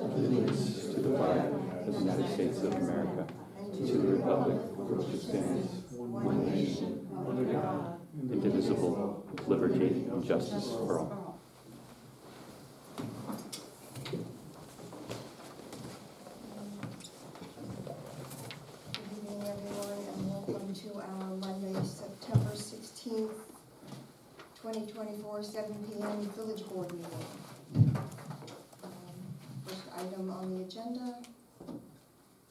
allegiance to the flag of the United States of America, and to the republic for which it stands, one nation, under God, indivisible, with liberty and justice for all. Good evening, everyone, and welcome to our Monday, September sixteenth, twenty twenty-four, seven P M, Village Board meeting. Um, First item on the agenda,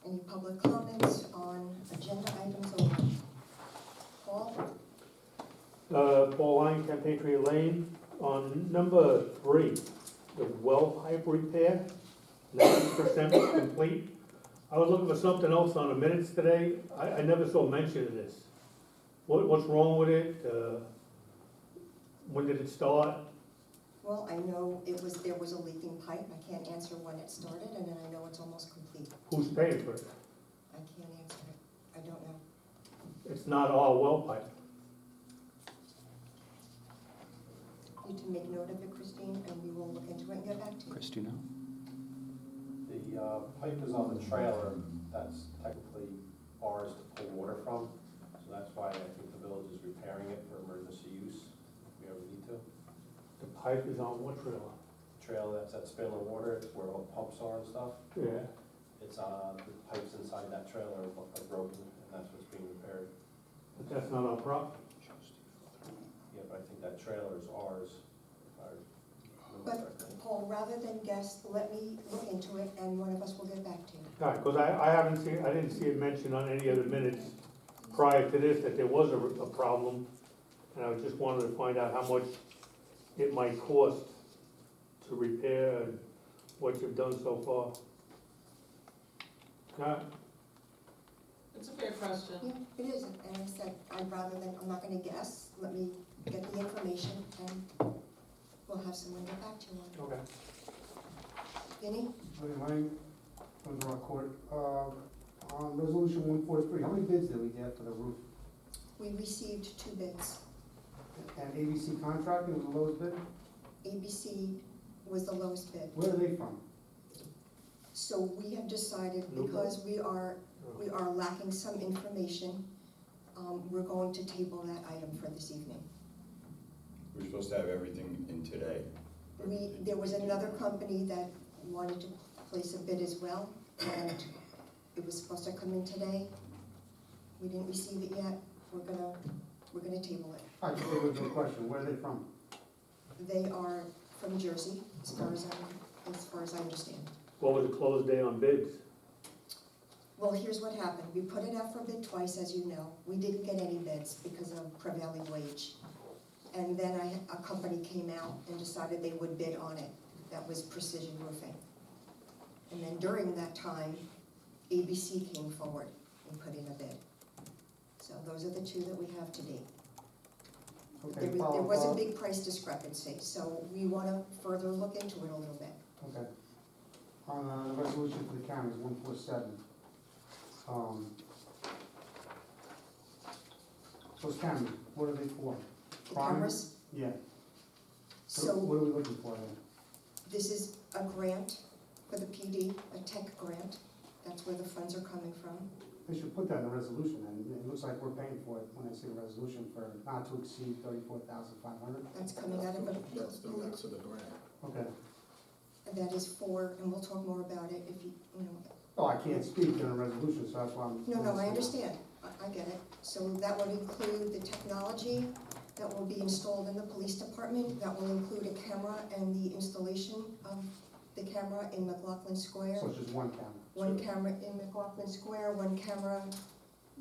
any public comments on agenda items only? Paul, Uh, Paul Lyon, Campeche Lane, on number three, the well pipe repair, ninety percent complete. I was looking for something else on the minutes today, I, I never saw mention of this. What, what's wrong with it, uh, when did it start? well, I know it was, there was a leaking pipe, I can't answer when it started, and then I know it's almost complete, Who's paying for it? I can't answer it, I don't know. It's not our well pipe. Need to make note of it, Christine, and we will look into it and get back to you. Chris, do you know? The uh, pipe is on the trailer, that's technically ours to pull water from, so that's why I think the village is repairing it for emergency use, if we ever need to. The pipe is on what trailer? Trailer, that's that spilling water, it's where all the pumps are and stuff, Yeah. it's, uh, the pipes inside that trailer are broken, and that's what's being repaired. But that's not our property. Yeah, but I think that trailer is ours, if I remember But correctly. Paul, rather than guess, let me look into it and one of us will get back to you. Right, because I, I haven't seen, I didn't see it mentioned on any other minutes prior to this that there was a, a problem. And I just wanted to find out how much it might cost to repair and what you've done so far. Now, It's a fair question. Yeah, it is, and I said, I'd rather than, I'm not gonna guess, let me get the information and we'll have someone get back to you on okay, it. Vinnie? Attorney Lang, from the Rock Court, uh, on resolution one forty-three, how many bids did we get for the roof? We received two bids. And ABC contracting was the lowest bid, ABC was the lowest bid. where are they from? So we have decided, Nope. because we are, we are lacking some information, um, we're going to table that item for this evening. We're supposed to have everything in today. but We, it- there was another company that wanted to place a bid as well, and it was supposed to come in today. We didn't receive it yet, we're gonna, we're gonna table it. I just gave you a question, where are they from? They are from Jersey, as far as I, as far as I understand. what was the close day on bids? Well, here's what happened, we put it out for bid twice, as you know, we didn't get any bids because of prevailing wage. And then I, a company came out and decided they would bid on it, that was Precision Roofing. And then during that time, ABC came forward and put in a bid. So those are the two that we have to date. But Okay, There was, follow there was a follow- big price discrepancy, so we wanna further look into it a little bit. Okay. On, uh, resolution for the counties, one four seven. Um, those cameras, what are they for? The Fine. cameras, Yeah, so. so what are we looking for then? This is a grant for the PD, a tech grant. That's where the funds are coming from. They should put that in the resolution, and it looks like we're paying for it when I say resolution for not to exceed thirty-four thousand five hundred. That's coming out of That's the a, max of the grant. Okay, that is for, and we'll talk more about it if you, you know. oh, I can't speak during a resolution, so that's why I'm. No, no, I understand. I, I get it. So that would include the technology that will be installed in the police department. That will include a camera and the installation of the camera in McLaughlin Square. So it's just one camera. One camera in McLaughlin Square, one camera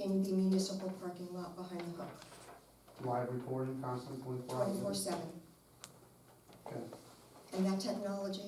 in the municipal parking lot behind the hook, Live recording, constant twenty-four hours. twenty-four seven. Okay. And that technology